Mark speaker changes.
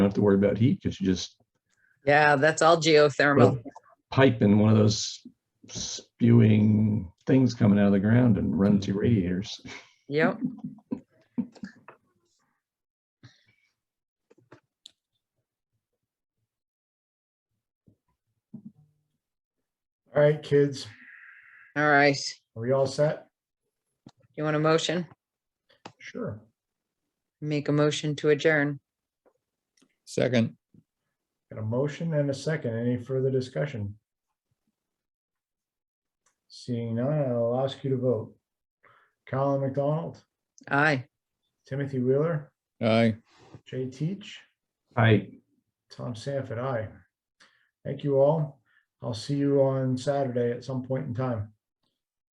Speaker 1: have to worry about heat because you just
Speaker 2: Yeah, that's all geothermal.
Speaker 1: pipe in one of those spewing things coming out of the ground and run to radiators.
Speaker 2: Yep.
Speaker 3: All right, kids,
Speaker 2: All right.
Speaker 3: are we all set?
Speaker 2: You want a motion?
Speaker 3: Sure.
Speaker 2: Make a motion to adjourn.
Speaker 4: Second,
Speaker 3: Got a motion and a second. Any further discussion? Seeing none, I'll ask you to vote. Colin McDonald,
Speaker 2: Aye.
Speaker 3: Timothy Wheeler,
Speaker 4: aye.
Speaker 3: Jay Teach,
Speaker 1: I
Speaker 3: Tom Sanford, aye. Thank you all. I'll see you on Saturday at some point in time.